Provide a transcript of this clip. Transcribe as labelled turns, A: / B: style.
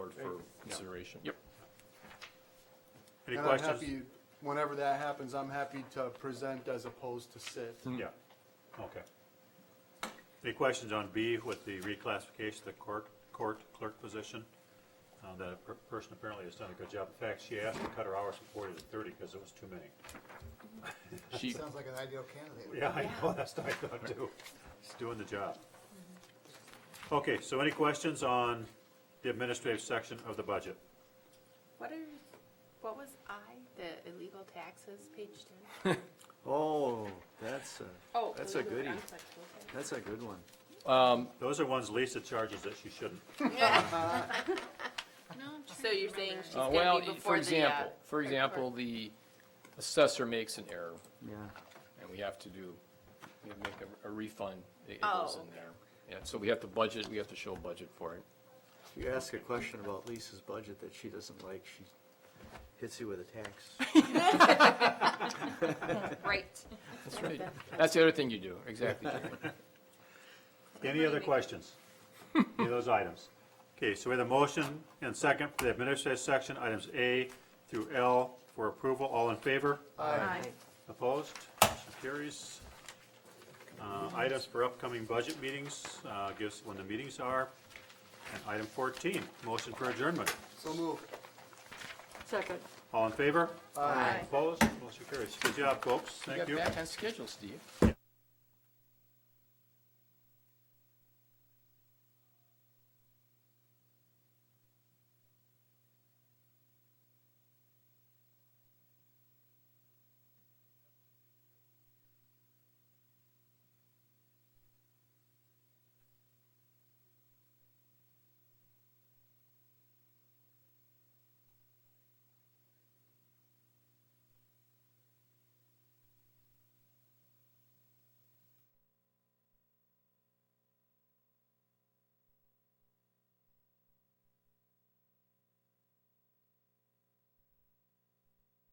A: board for consideration.
B: Yep.
C: Any
D: And I'm
C: questions?
D: happy, whenever that happens, I'm happy to present as opposed to sit.
C: Yeah, okay. Any questions on B with the reclassification of the court, court clerk position? Uh, that per- person apparently has done a good job. In fact, she asked to cut her hours from forty to thirty because it was too many.
B: She,
E: Sounds like an ideal candidate.
C: Yeah, I know, that's what I thought too. He's doing the job. Okay, so any questions on the administrative section of the budget?
F: What are, what was I, the illegal taxes, page ten?
G: Oh, that's a,
F: Oh.
G: that's a
F: illegal-
G: goodie.
F: I'm sorry, okay.
G: That's a good one.
C: Those are ones Lisa charges that she shouldn't.
F: So you're saying she's
B: uh,
F: gonna
B: well,
F: be
B: for
F: before the, uh.
B: example, for example, the assessor makes an error
G: Yeah.
B: and we have to do, we have to make a- a refund. It it
F: Oh,
B: goes in
F: okay.
B: there. Yeah, so we have to budget, we have to show budget for it.
G: You ask a question about Lisa's budget that she doesn't like, she hits you with a tax.
F: Right.
B: That's right. That's the other thing you do, exactly. Jerry.
C: Any other questions? Any of those items? Okay, so we have a motion and second for the administrative section, items A through L for approval. All in favor? Opposed? Motion carries. Uh, Items for upcoming budget meetings, uh, give us when the meetings are. And item 14, motion for adjournment.
D: So move.
F: Second.
C: All in favor?
F: Aye.
C: Opposed? Motion carries. Good job, folks. Thank you.
B: got back on schedule, Steve.
C: Yeah,